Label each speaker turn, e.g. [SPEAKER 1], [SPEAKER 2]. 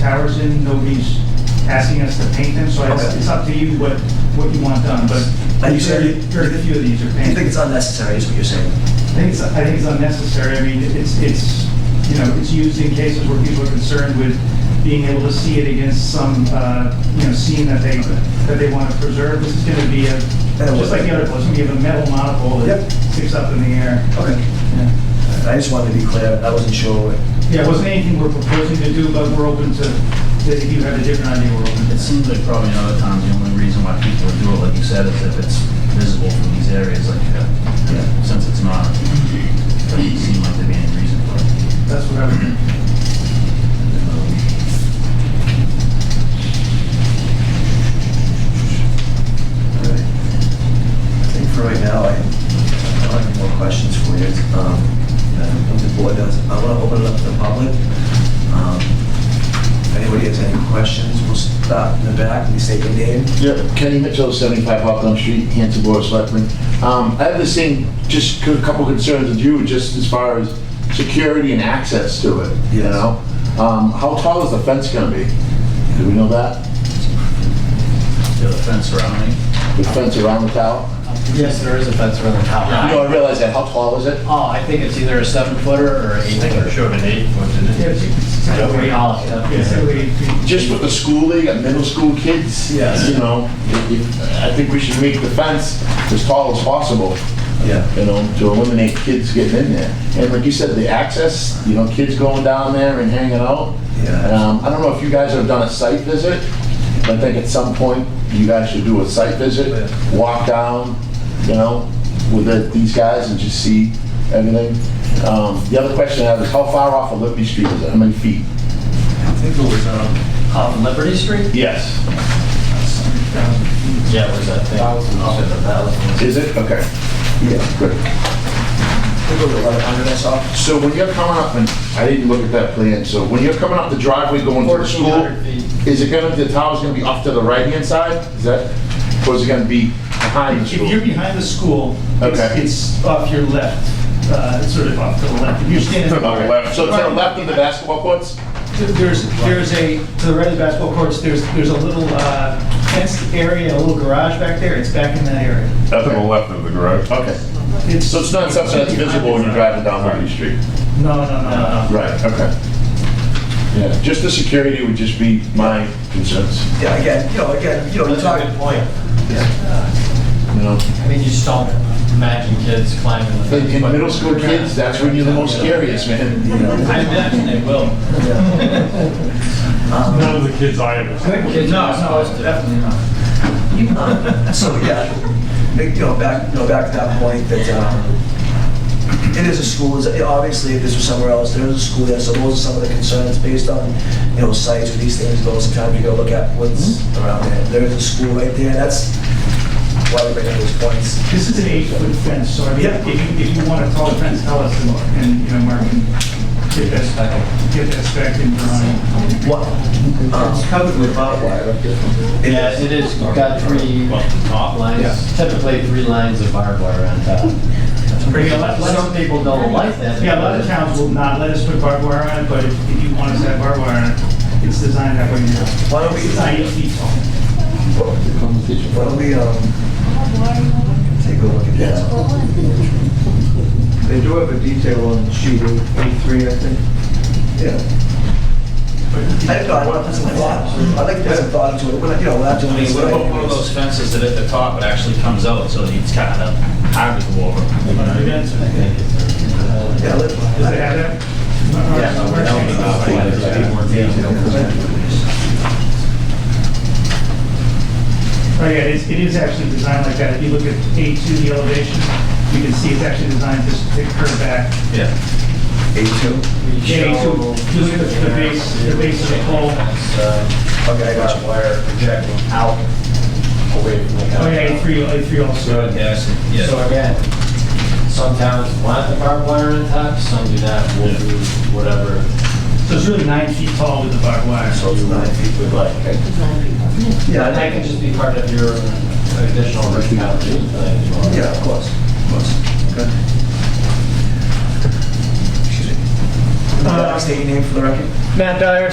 [SPEAKER 1] Harrison, nobody's asking us to paint them, so I-
[SPEAKER 2] Okay.
[SPEAKER 1] it's up to you what, what you want done, but
[SPEAKER 2] But you said-
[SPEAKER 1] very, very few of these are
[SPEAKER 2] You think
[SPEAKER 1] painted.
[SPEAKER 2] it's unnecessary, is what you're saying?
[SPEAKER 1] I think it's, I think it's unnecessary, I mean, it's, it's, you know, it's used in cases where people are concerned with being able to see it against some, uh, you know, scene that they, that they want to preserve. This is gonna be a,
[SPEAKER 2] And it
[SPEAKER 1] just like the other ones, we have a metal monopole that
[SPEAKER 2] Yep.
[SPEAKER 1] sticks up in the air.
[SPEAKER 2] Okay.
[SPEAKER 1] Yeah.
[SPEAKER 2] I just wanted to be clear, I wasn't sure.
[SPEAKER 1] Yeah, it wasn't anything we're proposing to do, but we're open to, if you have a different idea, we're open to
[SPEAKER 3] It
[SPEAKER 1] that.
[SPEAKER 3] seems like probably in other towns, the only reason why people would do it, like you said, is if it's visible from these areas, like, uh,
[SPEAKER 2] Yeah.
[SPEAKER 3] since it's not, it doesn't seem like there'd be any reason for it.
[SPEAKER 1] That's what I would do.
[SPEAKER 2] All right. I think for right now, I I don't have any more questions for you. Um, I don't think The board does. I want to open it up to the public. Um, If anybody has any questions, we'll start in the back, please state your name.
[SPEAKER 4] Yeah, Kenny Mitchell, 75 Hawthorne Street, Hanson Board of Selectmen. Um, I have the same, just a couple concerns with you, just as far as security and access to it, you
[SPEAKER 2] Yes.
[SPEAKER 4] know? Um, How tall is the fence going to be? Do we know that?
[SPEAKER 3] The fence surrounding?
[SPEAKER 4] The fence around the tower?
[SPEAKER 5] Yes, there is a fence around the tower.
[SPEAKER 4] No, I realize that. How tall is it?
[SPEAKER 5] Oh, I think it's either a seven footer or eight footer.
[SPEAKER 3] showed an eight foot, didn't
[SPEAKER 1] Yeah, it's- it's kind of
[SPEAKER 5] Yeah, we
[SPEAKER 1] way
[SPEAKER 5] all
[SPEAKER 1] off.
[SPEAKER 5] have-
[SPEAKER 1] Yeah, it's kind of way-
[SPEAKER 4] Just with the school, they got middle school kids,
[SPEAKER 2] Yes.
[SPEAKER 4] you know? if- if- I think we should make the fence as tall as possible.
[SPEAKER 2] Yeah.
[SPEAKER 4] you know, to eliminate kids getting in there. And like you said, the access, you know, kids going down there and hanging out.
[SPEAKER 2] Yeah.
[SPEAKER 4] Um, I don't know if you guys have done a site visit, but I think at some point you guys should do a site visit, walk down, you know, with the- these guys and just see everything. Um, the other question I have is how far off of Liberty Street is it? How many feet?
[SPEAKER 5] I think it was, um, off Liberty Street?
[SPEAKER 4] Yes.
[SPEAKER 5] Yeah, it was that thing.
[SPEAKER 3] Thousand.
[SPEAKER 5] Off of the thousand.
[SPEAKER 4] Is it? Okay,
[SPEAKER 2] Yeah.
[SPEAKER 4] good.
[SPEAKER 2] We'll go to 1100, I saw.
[SPEAKER 4] So when you're coming up, and I didn't look at that plan, so when you're coming up the driveway going to the school,
[SPEAKER 5] 1,400 feet.
[SPEAKER 4] is it gonna, the tower's gonna be off to the right-hand side? Is that, or is it gonna be behind the
[SPEAKER 1] If you're
[SPEAKER 4] school?
[SPEAKER 1] behind the school,
[SPEAKER 4] Okay.
[SPEAKER 1] it's, it's off your left, uh, it's sort of off to the left. If you're standing.
[SPEAKER 4] To the left, so to the left of the basketball courts?
[SPEAKER 1] There's, there's a, to the right of the basketball courts, there's, there's a little uh, fenced area, a little garage back there, it's back in that area.
[SPEAKER 6] Up to the left of the garage.
[SPEAKER 4] Okay, so it's not something that's visible when you're driving down Liberty Street?
[SPEAKER 1] No, no, no, no.
[SPEAKER 4] Right, okay. Yeah, just the security would just be my concerns,
[SPEAKER 2] Yeah, again, you know, again, you know, you're
[SPEAKER 5] That's a
[SPEAKER 2] talking.
[SPEAKER 5] good point.
[SPEAKER 4] you know?
[SPEAKER 5] I mean, you just don't imagine kids climbing the
[SPEAKER 4] In
[SPEAKER 5] fence.
[SPEAKER 4] in
[SPEAKER 5] but-
[SPEAKER 4] middle school kids, that's when you're the most curious, man, you know?
[SPEAKER 5] I imagine they will.
[SPEAKER 6] None of the kids I ever seen.
[SPEAKER 5] Kids are supposed to.
[SPEAKER 3] not.
[SPEAKER 2] Um, So, yeah, make- you know, back, you know, back to that point that um, it is a school, it's- obviously, if this was somewhere else, there is a school there, so those are some of the concerns based on, you know, sites where these things go, sometimes you gotta look at what's around there. There is a school right there, that's why we bring up those points.
[SPEAKER 1] This is an eight-foot fence, so I mean, if you, if you want a tall fence, tell us, and- and, you know, Mark can get that spec, get that spec in drawing.
[SPEAKER 2] What? It's covered with barbed wire.
[SPEAKER 5] Yeah, it is, You've got three top lines, typically three lines of barbed wire on top.
[SPEAKER 1] pretty good. Let- let's-
[SPEAKER 5] Some people don't like that.
[SPEAKER 1] Yeah, a lot of
[SPEAKER 5] because-
[SPEAKER 1] towns will not let us put barbed wire on it, but if if you want us to have barbed wire on it, it's designed that way.
[SPEAKER 2] Why don't we-
[SPEAKER 1] It's not eight feet tall.
[SPEAKER 2] Why don't we, um, take a look at that?
[SPEAKER 7] They do have a detail on sheet A3, I think.
[SPEAKER 2] Yeah. I don't know, I want to put some thought, I'd like to put some thought into it, We're not- you know, we're not doing
[SPEAKER 3] I mean,
[SPEAKER 2] this.
[SPEAKER 3] what about one of those fences that at the top it actually comes out, so it's kind of hard to go over?
[SPEAKER 2] Yeah, let-
[SPEAKER 1] Does it have that? Oh, yeah, it's, it is actually designed like that. If you look at A2, the elevation, you can see it's actually designed just to curve back.
[SPEAKER 3] Yeah.
[SPEAKER 2] A2?
[SPEAKER 1] Yeah, A2, you look at the the base, the base of the pole.
[SPEAKER 2] Okay, I got you.
[SPEAKER 5] Wire projecting out away from the
[SPEAKER 1] Oh,
[SPEAKER 5] concrete.
[SPEAKER 1] yeah, A3, A3 also.
[SPEAKER 3] Yeah, I see. Yeah.
[SPEAKER 5] So again, some towns want the barbed wire on top, some do not, we'll
[SPEAKER 3] Yeah.
[SPEAKER 5] do whatever
[SPEAKER 1] So it's really nine feet tall with the barbed wire.
[SPEAKER 5] you would like.
[SPEAKER 2] Yeah, I
[SPEAKER 5] And that
[SPEAKER 2] think-
[SPEAKER 5] can just be part of your additional uh, recommendation.
[SPEAKER 2] yeah, of course, of course. Okay.
[SPEAKER 7] Um,
[SPEAKER 2] Excuse me. Uh, State your name for the record.
[SPEAKER 8] Matt Dyer,